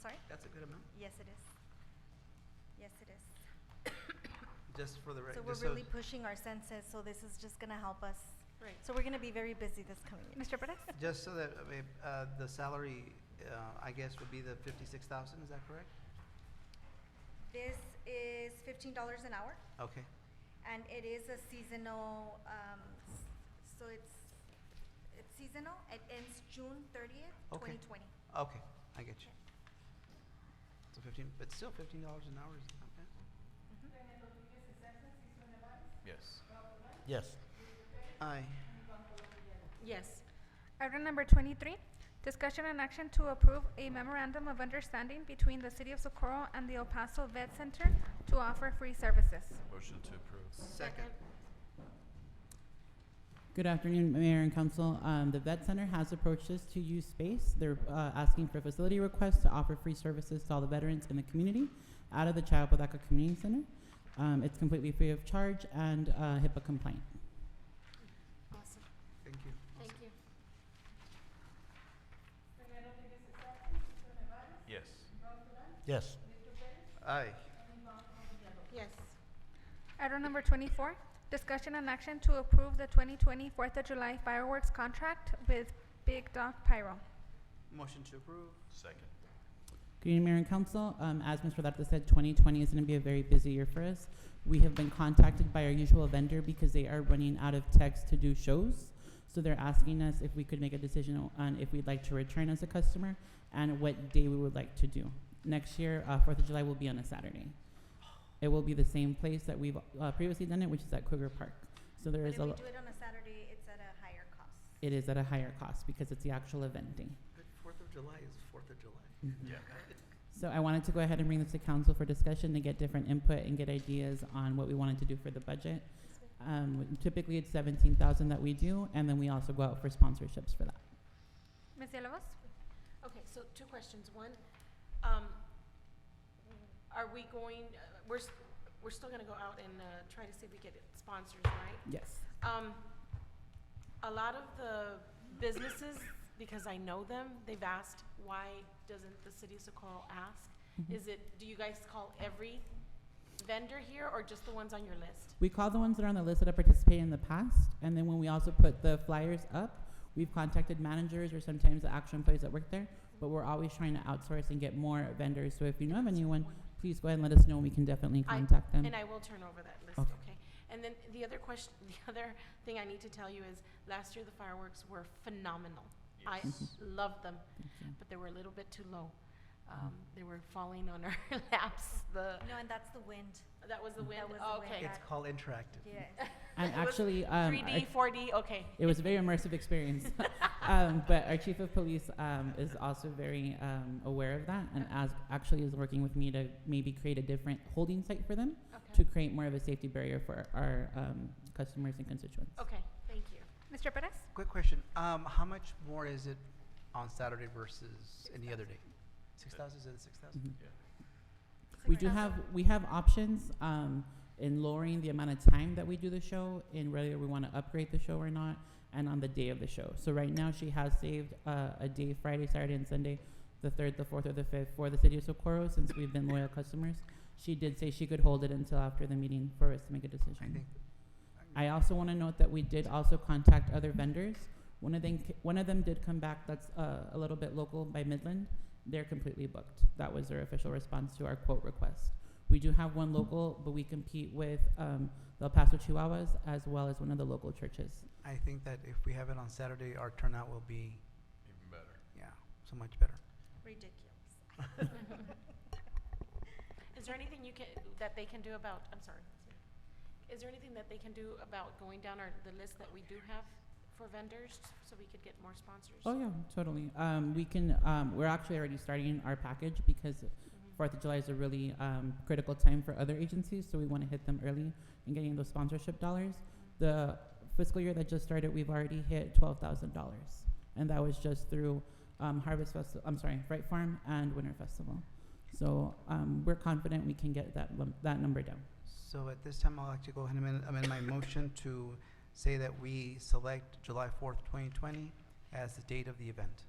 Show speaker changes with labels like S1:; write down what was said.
S1: sorry?
S2: That's a good amount.
S1: Yes, it is. Yes, it is.
S2: Just for the record.
S1: So we're really pushing our senses, so this is just gonna help us.
S3: Right.
S1: So we're gonna be very busy this coming year.
S4: Mr. Perez?
S2: Just so that, I mean, uh, the salary, uh, I guess, would be the fifty-six thousand, is that correct?
S1: This is fifteen dollars an hour,
S2: Okay,
S1: and it is a seasonal, um, s- so it's, it's seasonal. It ends June thirtieth, twenty
S2: Okay.
S1: twenty.
S2: okay, I get you. So fifteen, but still fifteen dollars an hour is not bad.
S5: Yes.
S6: Yes.
S2: Aye.
S3: Yes.
S4: Item number twenty-three, discussion and action to approve a memorandum of understanding between the City of Socorro and the El Paso Vet Center to offer free services.
S5: Motion to approve.
S2: Second.
S7: Good afternoon, Mayor and Council. Um, the Vet Center has approached us to use space. They're uh, asking for facility requests to offer free services to all the veterans in the community out of the Chiapodaca Community Center. Um, it's completely free of charge and uh, HIPAA compliant.
S3: Awesome.
S2: Thank you.
S3: Thank you.
S5: Yes.
S6: Yes.
S2: Aye.
S3: Yes.
S4: Item number twenty-four, discussion and action to approve the 2020 Fourth of July fireworks contract with Big Dog Pyro.
S2: Motion to approve.
S5: Second.
S7: Good evening, Mayor and Council. Um, as Mr. Darte said, 2020 is going to be a very busy year for us. We have been contacted by our usual vendor because they are running out of techs to do shows. So they're asking us if we could make a decision on if we'd like to return as a customer and what day we would like to do. Next year, uh, 4th of July will be on a Saturday. It will be the same place that we've uh, previously done it, which is at Cougar Park. So there
S1: But
S7: is
S1: if we
S7: a,
S1: do it on a Saturday, it's at a higher cost.
S7: it is at a higher cost because it's the actual event day.
S2: But Fourth of July is Fourth of July.
S5: Yeah.
S7: So I wanted to go ahead and bring this to council for discussion to get different input and get ideas on what we wanted to do for the budget. Um, typically, it's seventeen thousand that we do, and then we also go out for sponsorships for that.
S4: Ms. Villalobos?
S3: Okay, so two questions. One, um, are we going, uh, we're, s- we're still gonna go out and, uh, try to see if we get sponsors, right?
S7: Yes.
S3: Um, a lot of the businesses, because I know them, they've asked, why doesn't the city of Socorro ask? Is it, do you guys call every vendor here or just the ones on your list?
S7: We call the ones that are on the list that have participated in the past, and then when we also put the flyers up, we've contacted managers or sometimes the actual employees that work there, but we're always trying to outsource and get more vendors. So if you know of anyone, please go ahead and let us know, and we can definitely
S3: I-
S7: contact them.
S3: And I will turn over that list,
S7: Okay.
S3: okay? And then the other question, the other thing I need to tell you is, last year the fireworks were phenomenal. I
S7: Yes.
S3: loved them,
S7: Thank you.
S3: but they were a little bit too low.
S7: Mm-hmm.
S3: Um, they were falling on our laps, the,
S1: No, and that's the wind.
S3: that was the wind,
S1: was the wind.
S3: okay.
S2: It's called interactive.
S1: Yes.
S7: And
S3: It was
S7: actually, um, I-
S3: 3D, 4D, okay.
S7: It was a very immersive experience. um, but our chief of police um, is also very um, aware of that and as, actually is working with me to maybe create a different holding site for them
S3: Okay.
S7: to create more of a safety barrier for our um, customers and constituents.
S3: Okay, thank you.
S4: Mr. Perez?
S2: Quick question, um, how much more is it on Saturday versus any other day? Six thousand, is it six thousand?
S5: Yeah.
S7: We do have we have options um, in lowering the amount of time that we do the show, in whether we want to upgrade the show or not, and on the day of the show. So right now, she has saved uh, a day, Friday, Saturday, and Sunday, the third, the fourth, or the fifth for the city of Socorro. Since we've been loyal customers, she did say she could hold it until after the meeting for us to make a
S2: I
S7: decision.
S2: think,
S7: I also want to note that we did also contact other vendors. One of them, one of them did come back. That's uh, a little bit local by Midland. They're completely booked. That was their official response to our quote request. We do have one local, but we compete with um, the El Paso Chihuahuas as well as one of the local churches.
S2: I think that if we have it on Saturday, our turnout will be,
S5: Even better.
S2: yeah, so much better.
S1: Ridiculous.
S3: Is there anything you can, that they can do about, I'm sorry. Is there anything that they can do about going down our, the list that we do have for vendors, so we could get more sponsors?
S7: Oh yeah, totally. Um, we can. Um, we're actually already starting our package because
S3: Mm-hmm.
S7: Fourth of July is a really um, critical time for other agencies, so we want to hit them early and getting those sponsorship dollars. The fiscal year that just started, we've already hit twelve thousand dollars, and that was just through um, Harvest Festival. I'm sorry, Fright Farm and Winter Festival. So um, we're confident we can get that lum- that number down.
S2: So at this time, I'll actually go ahead and amend, amend my motion to say that we select July fourth, twenty twenty as the date of the event.